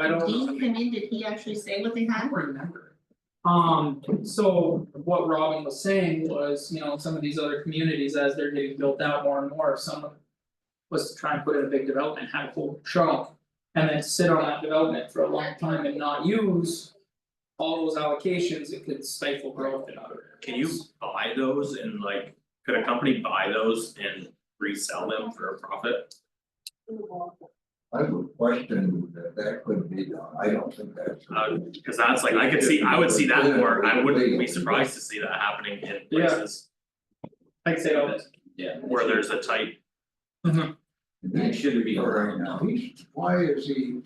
I Did don't. he come in, did he actually say what they had? remember. Um, so what Robin was saying was, you know, some of these other communities, as they're getting built out more and more, if someone. Was to try and put in a big development, have a full trunk, and then sit on that development for a long time and not use. All those allocations, it could stifle growth in other areas. Can you buy those and like, could a company buy those and resell them for a profit? I would question that that could be done, I don't think that's. Uh, cause that's like, I could see, I would see that more, I wouldn't be surprised to see that happening in places I'd say oh, all this, Yeah. where there's a tight. It shouldn't be Right allowed now, he's, why is he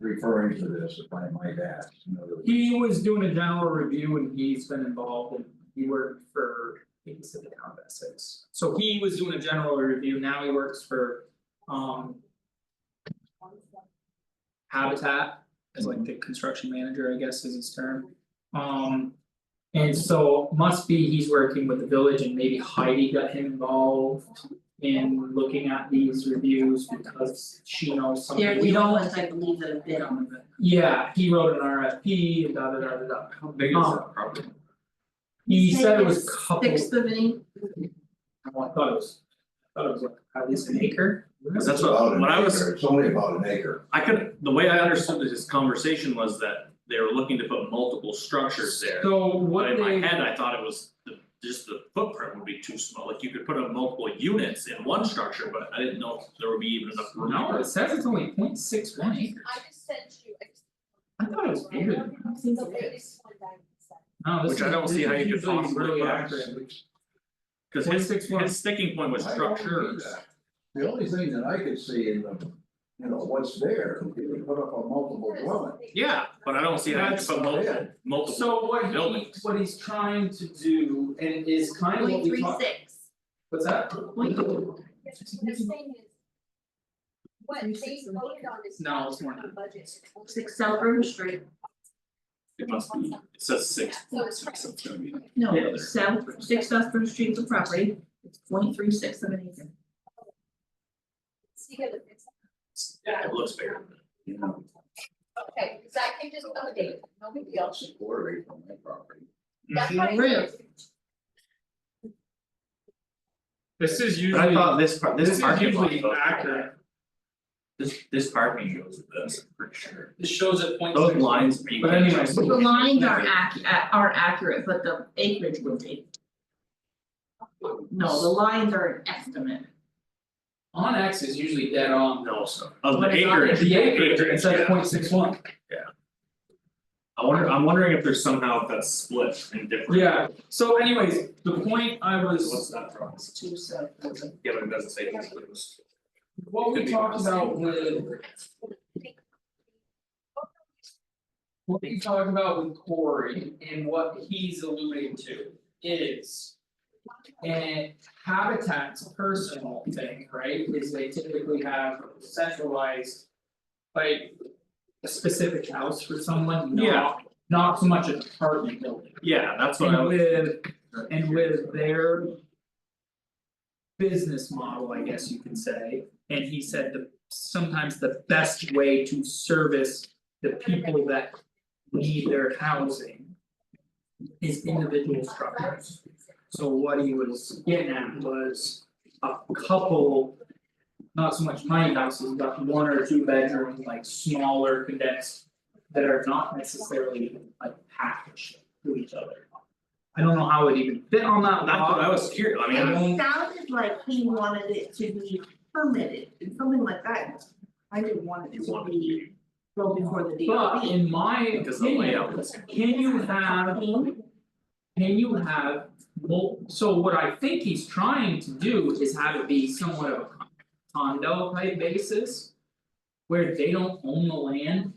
referring to this, if I might ask, in other words? he was doing a general review and he's been involved and he worked for, I think he said the town of Essex. So he was doing a general review, now he works for, um, Habitat as like the construction manager, I guess is his term. Um. And so must be he's working with the village and maybe Heidi got him involved in looking at these reviews because she knows something They're we the don't. only ones I believe that have bid on it. Yeah, he wrote an RFP and da da da da da. How big is that property? He said it was Six- couple, Sixth of an acre. I thought it was, I thought it was like at least an acre. Cause that's About what, an when I was acre, It's only about an acre. I could, the way I understood this conversation was that they were looking to put multiple structures there. So what But they. in my head, I thought it was the, just the footprint would be too small, like you could put up multiple units in one structure, but I didn't know if there would be even enough room. No, it says it's only 0.61 acres. I just sent you. I thought it was bigger than that. No, this Which I is- don't see this how is you could usually possibly really buy. accurate. Cause his 0.61. his sticking point was I don't see structures. that. The only thing that I could see in the, you know, what's there, if you put up a multiple dwelling. Yeah, but I don't see how you could put multiple, That's- multiple, So what he, Buildings. what he's trying to do and is kind of what Point we three talked, six. what's that? Point What I'm saying is. What they voted on is. No, it's more than Budget. Six South River Street, it must be, it says six. So it's right. so it's gotta be- no, Yeah. South, six South River Street's a property, it's point three six of an acre. See here, look, it's- Yeah, it looks bigger. You know, Okay, because I can just update, no big deal. Mm-hmm. it's a quarter acre on my property. That's what I Really? did. This is But I usually, thought this part, this this is parking lot. usually accurate, This this parking goes with this, I'm pretty sure. This shows at 0.61. Those lines are. But anyway, The lines are ac- uh, are accurate, but the acreage would be. No, the lines are an estimate, On X is usually dead on. No, so of the But it's on acreage. The acreage, it acreage, says yeah. 0.61. I wonder, I'm wondering if there's somehow that's split in different. Yeah, so anyways, the point I What's was, that from? it's two South River. Yeah, but it doesn't say this, but it was. what we talked about with, what we talked about with Corey and what he's alluding to is. And Habitat's personal thing, right, is they typically have centralized. Like. A specific house for someone, Yeah. not, not so much an apartment building. Yeah, that's what I And was. with, and with their. Business model, I guess you could say, and he said the, sometimes the best way to service the people that need their housing. Is individual structures, so what he was getting at was a couple. Not so much tiny houses, but one or two bedroom, like smaller condensed. That are not necessarily like packaged to each other. I don't know how it even fit on that That's what I lot, was curious, I mean, I- It sounded like he wanted it to be permitted and something like that. I didn't want it You to want it to be be, go before the but DOB. in my because the opinion, layout is, can you have? Can you have, well, so what I think he's trying to do is have it be somewhat of a con- condo type basis. Where they don't own the land.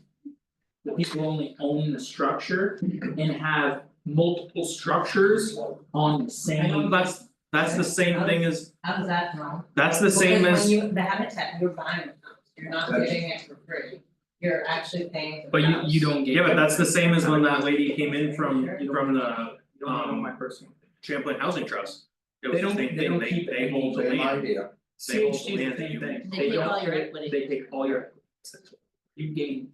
The people only own the structure and have multiple structures on the I know same. that's, that's the same thing as, How does that sound? that's the same Because as, when you, the habitat, you're buying the house, you're not That's- getting it for free, you're actually paying for But the you house. you don't get. yeah, but that's the same as when that lady came in from from the You don't um, own my personal. Champlain Housing Trust. They It was the don't- same they thing, don't they keep they hold the Same land, idea, they hold CHG the is land the that same you. thing, they They take don't, all your they equity. take all your. assets. You gain